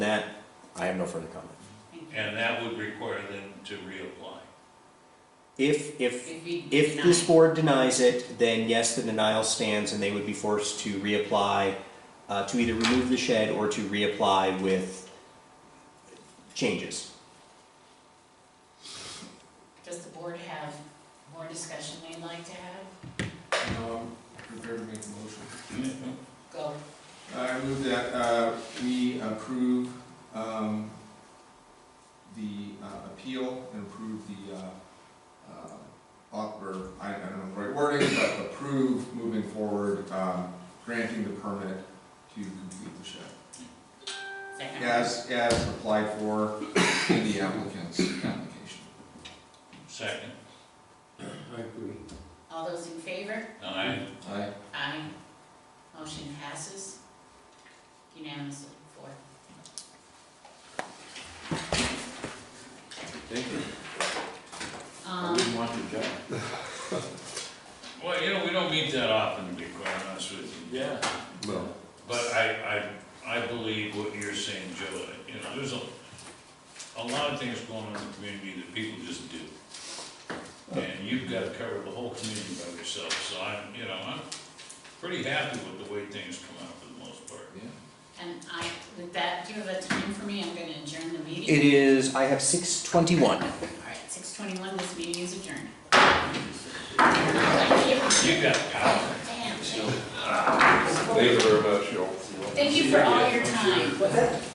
I have no further comment. And that would require them to reapply. If, if, If we if deny this it. board denies it, then yes, the denial stands and they would be forced to reapply, uh, to either remove the shed or to reapply with changes. Does the board have more discussion they'd like to have? No, I'm prepared Um, to make a motion. Go. I move that uh, we approve um, the uh, appeal and approve the, uh, uh, op- or, I I don't know the right wording, but approve moving forward, um, granting the permit to complete the shed. Second. As, as applied for in the applicant's application. Second, I agree. All those in favor? aye. Aye. Aye. Motion passes unanimously, four. Thank you. I Um, wouldn't want your job. Well, you know, we don't meet that often, to be quite honest with you. Yeah. Well. But I, I, I believe what you're saying, Joe, you know, there's a, a lot of things going on in the community that people just do. And you've got to cover the whole community by yourself, so I'm, you know, I'm pretty happy with the way things come out for the most part. and I, with that, do you have a time for me? I'm gonna adjourn the meeting. It is, I have six twenty-one. All right, six twenty-one, this meeting is adjourned. Thank you. You got power. Damn. Thank you very much, you Thank you for all your time.